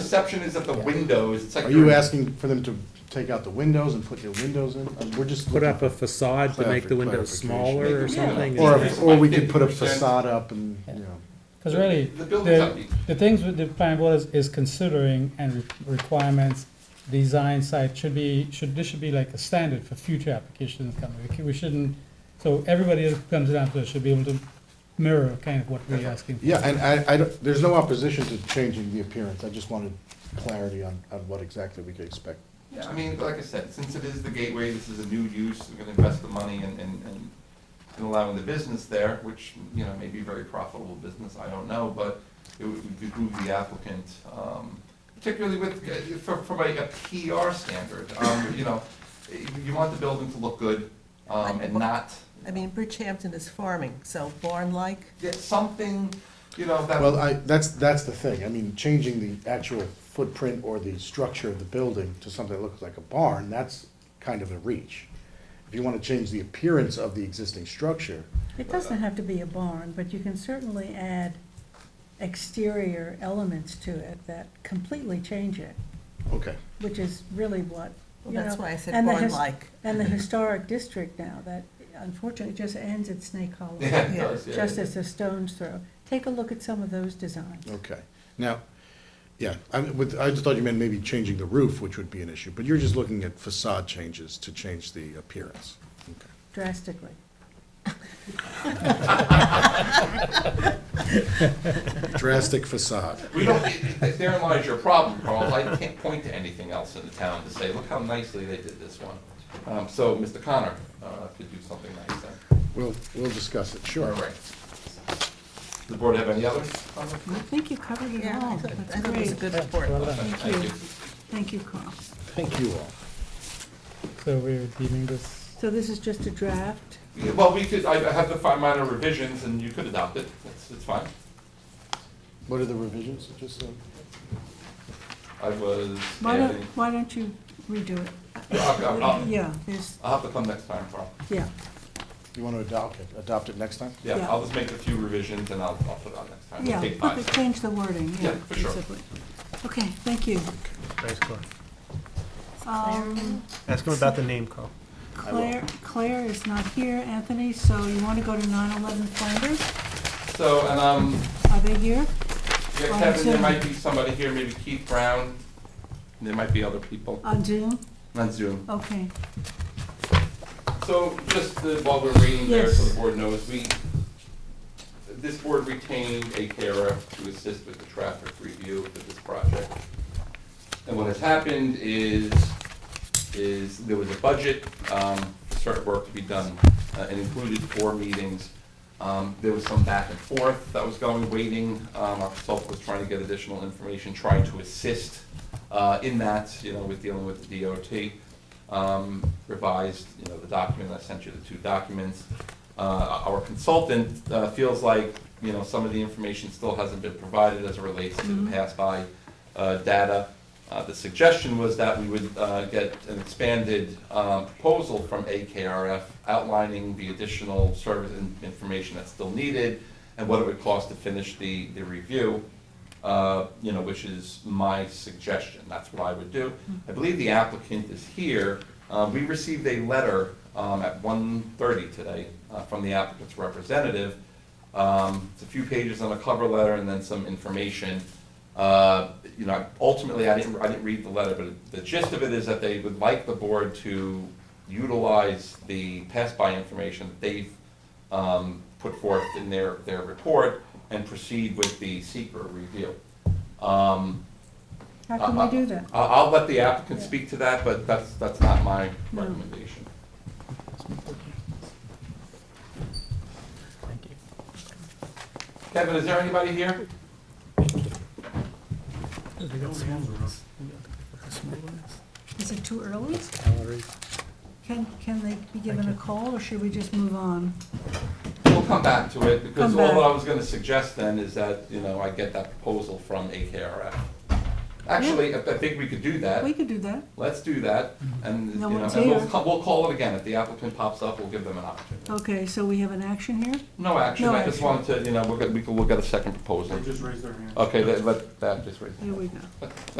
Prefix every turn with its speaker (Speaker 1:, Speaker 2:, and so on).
Speaker 1: perception is at the windows, it's like.
Speaker 2: Are you
Speaker 1: you're-
Speaker 2: asking for them to take out the windows and put new windows in? Um, We're just.
Speaker 3: Put up a facade to make the windows smaller or
Speaker 1: Make them-
Speaker 3: something?
Speaker 2: Or,
Speaker 1: Increase
Speaker 2: or
Speaker 1: by
Speaker 2: we could put a
Speaker 1: 50%.
Speaker 2: facade up and, you know,
Speaker 4: Because really,
Speaker 1: The building's
Speaker 4: the,
Speaker 1: upbeat.
Speaker 4: the things with the planning board is, is considering and re- requirements, design site should be, should, this should be like a standard for future applications coming. We c- We shouldn't, so everybody that comes in after us should be able to mirror kind of what we're asking. for.
Speaker 2: yeah, and I, I, don't- there's no opposition to changing the appearance. I just wanted clarity on, on what exactly we could expect.
Speaker 1: Yeah, I mean, like I said, since it is the gateway, this is a new use, we're gonna invest the money and, and, and in allowing the business there, which, you know, may be a very profitable business, I don't know, but it would behoove the applicant, um, particularly with, uh, for, from a a PR standard, um, you know, you- you want the building to look good, um, and not,
Speaker 5: I mean, Bridgehampton is farming, so barn-like,
Speaker 1: get something, you know, that.
Speaker 2: Well, I, that's, that's the thing. I mean, changing the actual footprint or the structure of the building to something that looks like a barn, that's kind of a reach. If you want to change the appearance of the existing structure,
Speaker 6: It doesn't have to be a barn, but you can certainly add exterior elements to it that completely change it,
Speaker 2: okay.
Speaker 6: which is really what,
Speaker 5: Well,
Speaker 6: you know.
Speaker 5: that's why I said
Speaker 6: and the his-
Speaker 5: barn-like.
Speaker 6: And the historic district now, that unfortunately just ends at Snake Hollow,
Speaker 1: Yeah, it does, yeah,
Speaker 6: just
Speaker 1: yeah.
Speaker 6: as a stone's throw. Take a look at some of those designs.
Speaker 2: Okay, now, yeah, I, with, I just thought you meant maybe changing the roof, which would be an issue, but you're just looking at facade changes to change the appearance. Okay.
Speaker 6: drastically.
Speaker 2: Drastic facade.
Speaker 1: We don't, therein lies your problem, Carl, I can't point to anything else in the town to say, look how nicely they did this one. Um, so Mr. Connor, uh, could do something nice then.
Speaker 2: We'll, we'll discuss it, sure.
Speaker 1: All right. Does The board have any others? comments?
Speaker 6: I think you covered it
Speaker 5: Yeah, I
Speaker 6: all.
Speaker 5: thought
Speaker 6: That's
Speaker 5: I thought it was a
Speaker 6: great.
Speaker 5: Oh, good report.
Speaker 4: Well done.
Speaker 1: Thank you.
Speaker 6: Thank you, Carl.
Speaker 2: Thank you all.
Speaker 4: So we're deeming this.
Speaker 6: So this is just a draft.
Speaker 1: Yeah, Well, we could, I I have to find minor revisions and you could adopt it, it's, it's fine.
Speaker 2: What are the revisions, just so?
Speaker 1: I was
Speaker 6: Why don't,
Speaker 1: adding,
Speaker 6: why don't you redo it?
Speaker 1: I'll, I'll- I'll-
Speaker 6: Yeah, there's,
Speaker 1: I'll have to come next time, Carl.
Speaker 6: yeah,
Speaker 2: You want to adopt it, adopt it next time?
Speaker 1: Yeah,
Speaker 6: Yeah.
Speaker 1: I'll just make a few revisions and I'll, I'll put it on next time. We'll
Speaker 6: yeah,
Speaker 1: take
Speaker 6: okay,
Speaker 1: five.
Speaker 6: change the wording, yeah.
Speaker 1: Yeah, for sure.
Speaker 6: basically. Okay, thank you.
Speaker 7: Thanks, Carl.
Speaker 6: Um,
Speaker 7: Ask him about the name, Carl.
Speaker 6: Claire, Claire is not here, Anthony, so you want to go to nine eleven Flanders?
Speaker 1: So, and, um,
Speaker 6: Are they here?
Speaker 1: yeah,
Speaker 6: On
Speaker 1: Kevin, there
Speaker 6: Zoom.
Speaker 1: might be somebody here, maybe Keith Brown, there might be other people
Speaker 6: On Zoom?
Speaker 1: on Zoom.
Speaker 6: Uh, Okay.
Speaker 1: So just the- while we're waiting there, so
Speaker 6: Yes.
Speaker 1: the board knows, we, this board retained a carer to assist with the traffic review of this project. And what has happened is, is there was a budget, um, for certain work to be done, uh, and included four meetings. Um, there was some back and forth that was going, waiting, um, our consultant was trying to get additional information, trying to assist, uh, in that, you know, with dealing with the DOT. Um, revised, you know, the document, I sent you the two documents. Uh, our consultant, uh, feels like, you know, some of the information still hasn't been provided as it relates to the pass-by, uh, data. Uh, The suggestion was that we would uh, get an expanded um, proposal from AKRF outlining the additional service and information that's still needed and what it would cost to finish the, the review, uh, you know, which is my suggestion. That's what I would do. I believe the applicant is here. Uh, We received a letter um, at 1:30 today uh, from the applicant's representative um, It's a few pages on a cover letter and then some information. Uh, You know, ultimately, I didn't, I didn't read the letter, but the gist of it is that they would like the board to utilize the pass-by information that they've um, put forth in their, their report and proceed with the secret review. Um,
Speaker 6: How can
Speaker 1: Uh,
Speaker 6: we do that?
Speaker 1: I- I'll let the applicant speak to that, but that's, that's not my recommendation. Kevin, is there anybody here?
Speaker 6: Is it too early? Can, can they be given a call, or should we just move on?
Speaker 1: We'll come back to it, because
Speaker 6: Come
Speaker 1: all
Speaker 6: back.
Speaker 1: I was gonna suggest then is that, you know, I get that proposal from AKRF. Actually, I I think we could do that.
Speaker 6: We could do that,
Speaker 1: Let's do that, and, you
Speaker 6: No
Speaker 1: know,
Speaker 6: one's
Speaker 1: and we'll,
Speaker 6: here.
Speaker 1: ca- we'll call it again, if the applicant pops up, we'll give them an opportunity.
Speaker 6: okay, so we have an action here?
Speaker 1: No action,
Speaker 6: No
Speaker 1: I just
Speaker 6: action.
Speaker 1: wanted to, you know, we'll get, we could, we'll get a second proposal.
Speaker 7: just raised their hand.
Speaker 1: Okay, let, let, that, just raise.
Speaker 6: There we go.